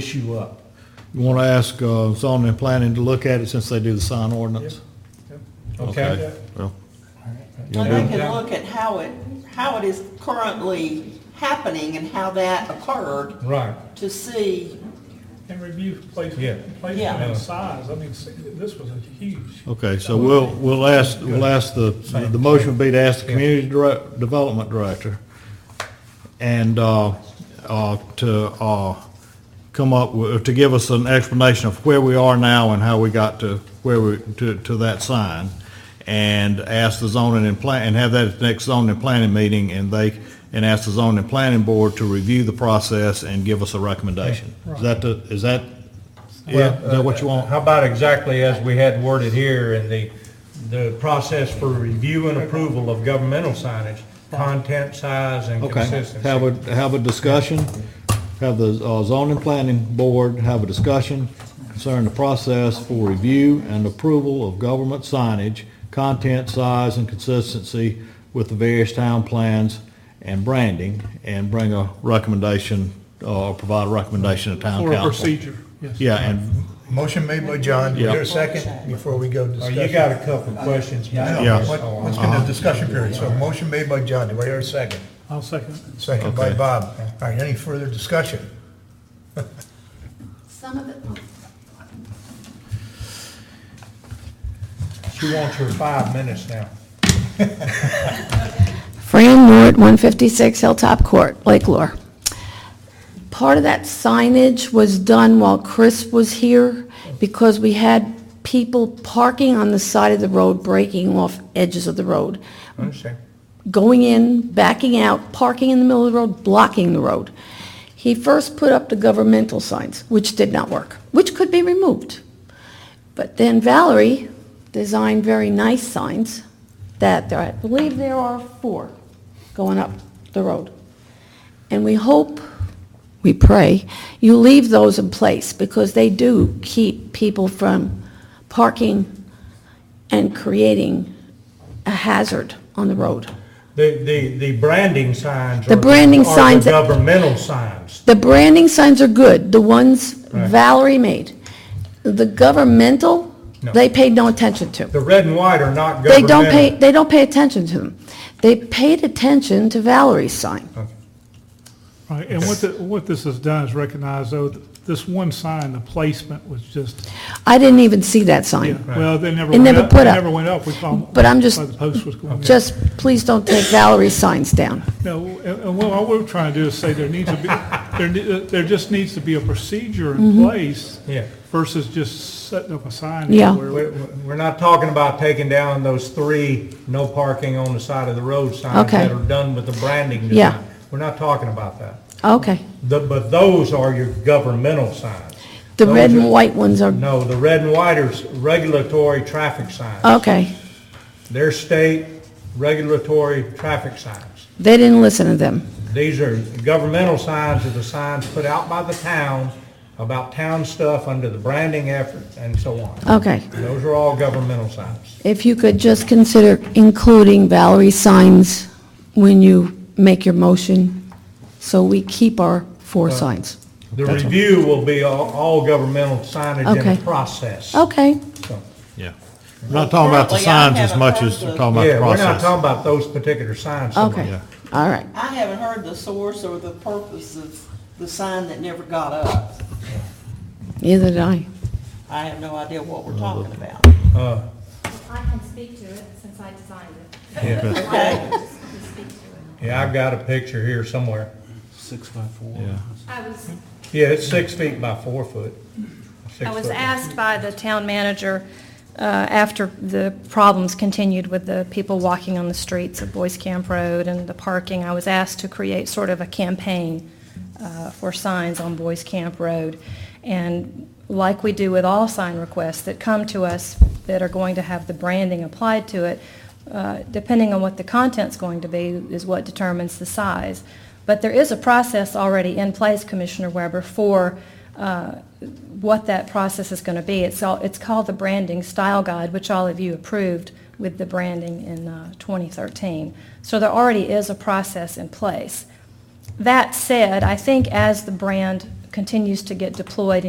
issue up. You want to ask uh, zoning and planning to look at it since they do the sign ordinance? Okay? Well, Well, they can Yeah. look at how it, how it is currently happening and how that occurred Right. to see, And review Yeah. placement, Yeah. placement and size, I mean, s- this was a huge. Okay, so we'll, we'll ask, we'll ask the, the motion would be to ask the community direct, development director and, uh, uh, to, uh, come up, with- to give us an explanation of where we are now and how we got to where we, to, to that sign. And ask the zoning and plan, and have that at the next zoning and planning meeting and they, and ask the zoning and planning board to review the process and give us a recommendation. Is that the, is that, yeah, is that what you want? uh, How about exactly as we had worded here in the, the process for review and approval of governmental signage, content, size, and Okay, consistency? have a, have a discussion, have the uh, zoning planning board have a discussion concerning the process for review and approval of government signage, content, size, and consistency with the various town plans and branding, and bring a recommendation, uh, provide a recommendation to town Or a council. procedure, yes. Yeah, and, Motion made by John, is Yeah. there a second before we go to Oh, discussion? you got a couple of questions. I know. Yeah. What- Let's get into discussion period, so motion made by John, do I hear a second? I'll second. Second by Okay. Bob. All right, any further discussion? Some of the, She wants her five minutes now. Fran Ward, 156 Hilltop Court, Lake Lore. Part of that signage was done while Chris was here because we had people parking on the side of the road, breaking off edges of the road, Understand? going in, backing out, parking in the middle of the road, blocking the road. He first put up the governmental signs, which did not work, which could be removed. But then Valerie designed very nice signs that there, I believe there are four going up the road. And we hope, we pray, you leave those in place because they do keep people from parking and creating a hazard on the road. The, the, the branding signs. The are branding are signs- the governmental signs. The branding signs are good, the ones Right. Valerie made. The governmental, No. they paid no attention to. The red and white are not They governmental. don't pay, they don't pay attention to them. They paid attention to Valerie's sign. Right, and what, the- what this has done is recognize, though, th- this one sign, the placement was just, I didn't even see that yeah, sign. well, they never It went never up, put they up. never went up. We saw 'em But I'm just- by The post was going down. Just, please don't take Valerie's signs down. No, and, and what all we're trying to do is say there needs to be, there, ne- there just needs to be a procedure Mm-hmm. in place Yeah. versus just setting up a sign. Yeah. everywhere. We're, we're not talking about taking down those three no parking on the side of the road signs Okay. that are done with the branding Yeah. design. We're not talking about that. Okay. The- But those are your governmental signs. The Those red are- and white ones are, No, the red and white are s- regulatory traffic signs. okay. They're state regulatory traffic signs. They didn't listen to them. These are governmental signs, are the signs put out by the town about town stuff under the branding effort and so on. Okay. Those are all governmental signs. If you could just consider including Valerie's signs when you make your motion, so we keep our four signs. The review will be all, all governmental signage in Okay. Oh. the process. Okay, So, yeah. We're not talking about the Currently, I signs as haven't much heard as we're the- talking about the Yeah, we're not process. talking about those particular signs. so much. okay, all right. I haven't heard the source or the purpose of the sign that never got up. Neither did I. I have no idea what we're talking about. Uh, I can speak to it since I designed it. Okay, Yeah, I've got a picture here somewhere. Yeah. I was, Yeah, it's six feet by four foot. Six I was foot. asked by the town manager, uh, after the problems continued with the people walking on the streets of Boys Camp Road and the parking, I was asked to create sort of a campaign uh, for signs on Boys Camp Road. And like we do with all sign requests that come to us that are going to have the branding applied to it, uh, depending on what the content's going to be is what determines the size. But there is a process already in place, Commissioner Weber, for uh, what that process is going to be. It's all, it's called the Branding Style Guide, which all of you approved with the branding in uh, 2013. So there already is a process in place. That said, I think as the brand continues to get deployed